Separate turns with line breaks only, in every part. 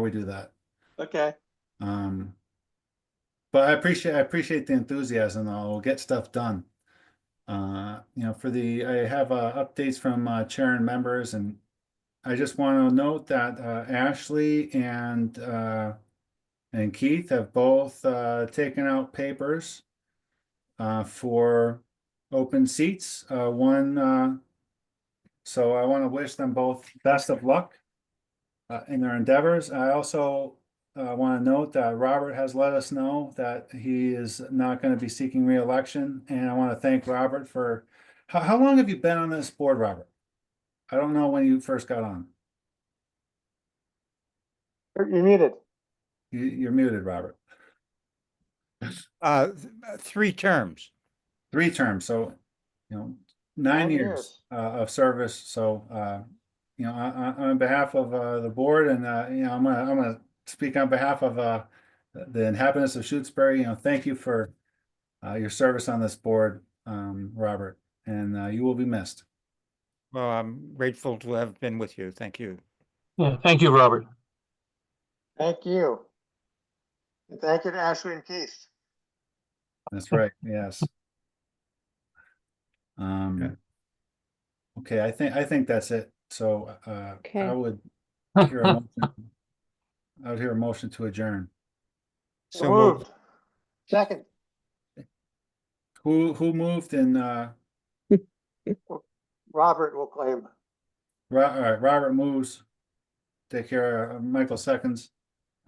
we do that.
Okay,
Um, but I appreciate I appreciate the enthusiasm. though. We'll get stuff done. Uh, you know, for the I have uh, updates from uh, chair and members, and I just want to note that uh, Ashley and uh, and Keith have both uh, taken out papers uh, for open seats. Uh, one, uh, so I want to wish them both best of luck uh, in their endeavors. I also Uh, I want to note that Robert has let us know that he is not going to be seeking reelection, and I want to thank Robert for, how, how long have you been on this board, Robert? I don't know when you first got on.
you're you're muted.
You, you're muted, Robert.
Uh, th- uh, three terms.
Three terms, so, you know, nine
Nine
years
years.
uh, of service, so, uh, you know, on, on behalf of, uh, the board and, uh, you know, I'm gonna, I'm gonna speak on behalf of, uh, the inhabitants of Shutesbury, you know, thank you for, uh, your service on this board, um, Robert, and, uh, you will be missed.
Well, I'm grateful to have been with you. Thank you.
Yeah, thank you, Robert.
Thank you. And thank you to Ashley and Keith.
That's right, yes. Um. Okay, I think, I think that's it, so, uh, I
Okay.
would hear a motion- I would hear a motion to adjourn.
So moved.
Second,
Who, who moved and, uh,
Robert will claim.
Ro- uh, Robert moves. Take care, uh, Michael seconds.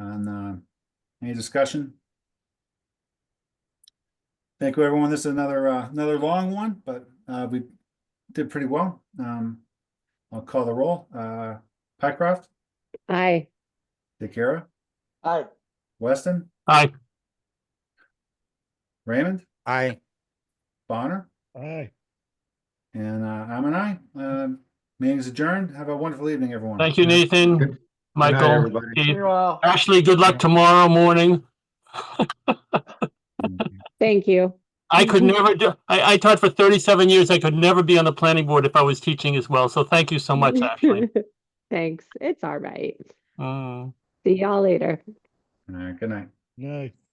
And, uh, any discussion? Thank you, everyone. This is another, uh, another long one, but, uh, we did pretty well. Um, I'll call the roll. Uh, Pycroft,
Aye.
DeCara,
Aye,
Weston,
Aye.
Raymond,
I,
Bonner,
Aye.
and, uh, I'm an I. Um, meeting's adjourned. Have a wonderful evening, everyone.
Thank you, Nathan, Michael,
everybody.
Keith.
you all.
Ashley, good luck tomorrow morning.
Thank you.
I could never do, I, I taught for thirty-seven years. I could never be on the planning board if I was teaching as well. So thank you so much, Ashley.
Thanks. It's all right.
Mm.
See y'all later.
All right, good night.
Nice.